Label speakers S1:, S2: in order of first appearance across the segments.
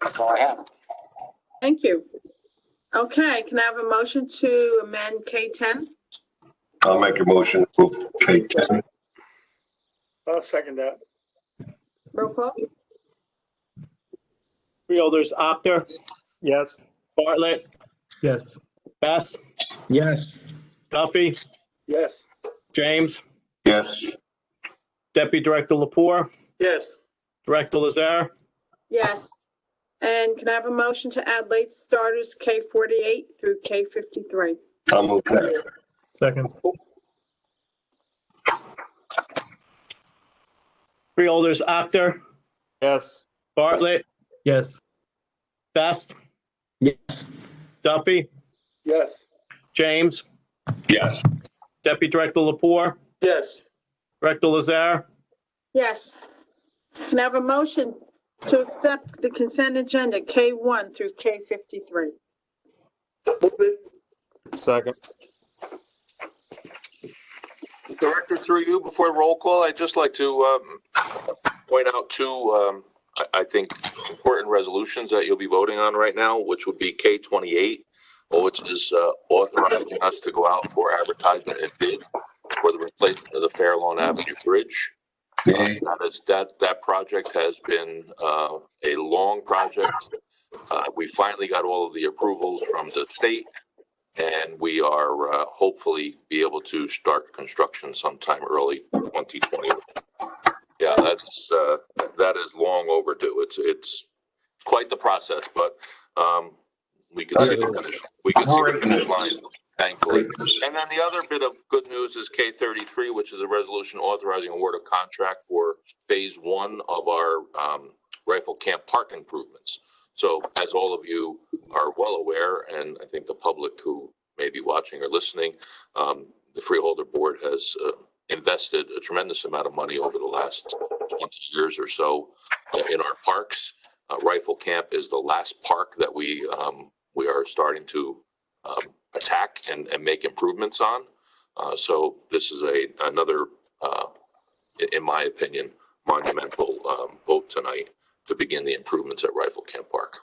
S1: That's all I have.
S2: Thank you. Okay, can I have a motion to amend K10?
S3: I'll make a motion to move K10.
S4: I'll second that.
S2: Roll call?
S5: Freeholders, Apter,
S4: Yes.
S5: Bartlett,
S6: Yes.
S5: Bess,
S6: Yes.
S5: Duffy,
S4: Yes.
S5: James,
S3: Yes,
S5: Deputy Director Lapore,
S4: Yes.
S5: Director Lazar,
S2: Yes. And can I have a motion to add late starters K48 through K53?
S3: I'll move that.
S6: Second.
S5: Freeholders, Apter,
S4: Yes.
S5: Bartlett,
S6: Yes.
S5: Bess,
S6: Yes.
S5: Duffy,
S4: Yes.
S5: James,
S3: Yes,
S5: Deputy Director Lapore,
S4: Yes.
S5: Director Lazar,
S2: Yes. Can I have a motion to accept the consent agenda K1 through K53?
S4: Move it.
S6: Second.
S7: Director, through you, before roll call, I'd just like to um, point out two, um, I I think, important resolutions that you'll be voting on right now, which would be K-28, which is uh, authorizing us to go out for advertisement and bid for the replacement of the Fair Lawn Avenue Bridge.
S3: Yay.
S7: That is, that, that project has been uh, a long project. Uh, We finally got all of the approvals from the state, and we are uh, hopefully be able to start construction sometime early 2020. Yeah, that's, uh, that is long overdue. It's, it's quite the process, but um, we can see the finish, we can see the finish line,
S3: Uh,
S7: thankfully. And then the other bit of good news is K thirty-three, which is a resolution authorizing award of contract for phase one of our um, rifle camp park improvements. So as all of you are well aware, and I think the public who may be watching or listening, um, the Freeholder Board has uh, invested a tremendous amount of money over the last twenty years or so uh, in our parks. Uh, Rifle Camp is the last park that we, um, we are starting to um, attack and, and make improvements on. Uh, so this is a, another, uh, i- in my opinion, monumental, um, vote tonight to begin the improvements at Rifle Camp Park.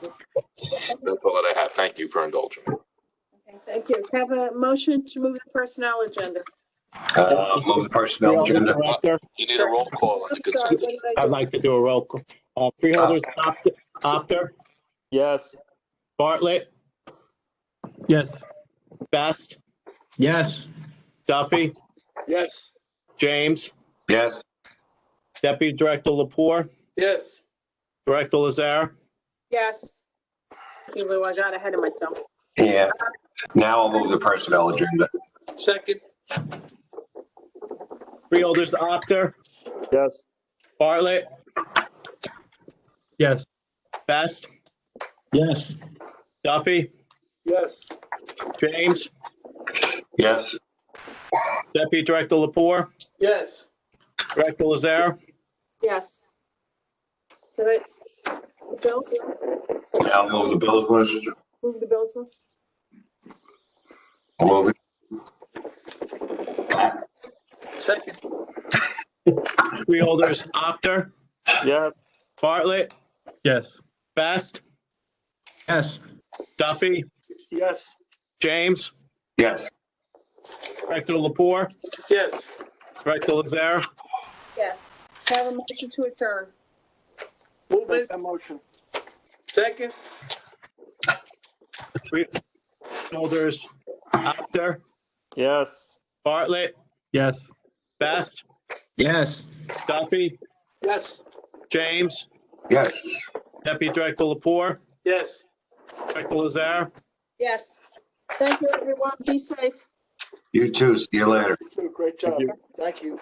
S7: That's all that I have. Thank you for indulging.
S2: Okay, Thank you. Can I Have a motion to move the personnel agenda?
S3: Uh, move the personnel agenda.
S5: Apter,
S7: You need a roll call on the
S2: I'm sorry,
S7: consent.
S2: what
S7: agenda.
S2: did I
S5: I'd
S2: do?
S5: like to do a roll call. Uh, Freeholders, Apter- Apter,
S4: Yes.
S5: Bartlett,
S6: Yes.
S5: Best,
S6: Yes.
S5: Duffy,
S4: Yes.
S5: James,
S3: Yes,
S5: Deputy Director Lapore,
S4: Yes.
S5: Director Lazar,
S2: Yes. Thank you, Lou, I got ahead of myself.
S3: yeah. Now I'll move the personnel agenda.
S4: Second.
S5: Freeholders, Apter,
S4: Yes.
S5: Bartlett,
S6: Yes.
S5: Best,
S6: Yes.
S5: Duffy,
S4: Yes.
S5: James,
S3: Yes,
S5: Deputy Director Lapore,
S4: Yes.
S5: Director Lazar,
S2: Yes. Did I, bills,
S3: now I'll move the bills list.
S2: move the bills list?
S3: I'll Move it.
S4: Second.
S5: Freeholders, Apter,
S4: Yes.
S5: Bartlett,
S6: Yes.
S5: Best,
S6: Yes.
S5: Duffy,
S4: Yes.
S5: James,
S3: Yes,
S5: Director Lapore,
S4: Yes.
S5: Director Lazar,
S2: Yes. Can I Have a motion to adjourn.
S4: Move it. motion. Second.
S5: Freeholders, Apter,
S4: Yes.
S5: Bartlett,
S6: Yes.
S5: Best,
S6: Yes.
S5: Duffy,
S4: Yes.
S5: James,
S3: yes.
S5: Deputy Director Lapore,
S4: Yes.
S5: Director Lazar,
S2: Yes. Thank you, everyone. Be safe.
S3: You too. See you later.
S4: Great job. Thank you.